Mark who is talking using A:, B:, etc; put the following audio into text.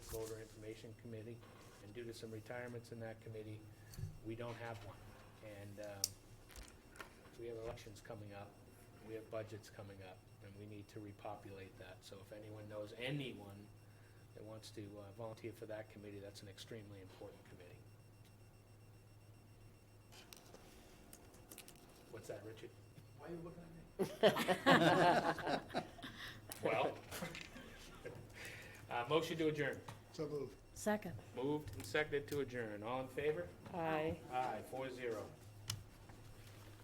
A: Compensation Committee, and due to some retirements in that committee, we don't have one. And um, we have elections coming up, we have budgets coming up, and we need to repopulate that. So if anyone knows anyone that wants to uh, volunteer for that committee, that's an extremely important committee. What's that, Richard?
B: Why are you looking at me?
A: Well, uh, motion to adjourn.
B: So moved.
C: Second.
A: Moved and seconded to adjourn. All in favor?
C: Aye.
A: Aye, four zero.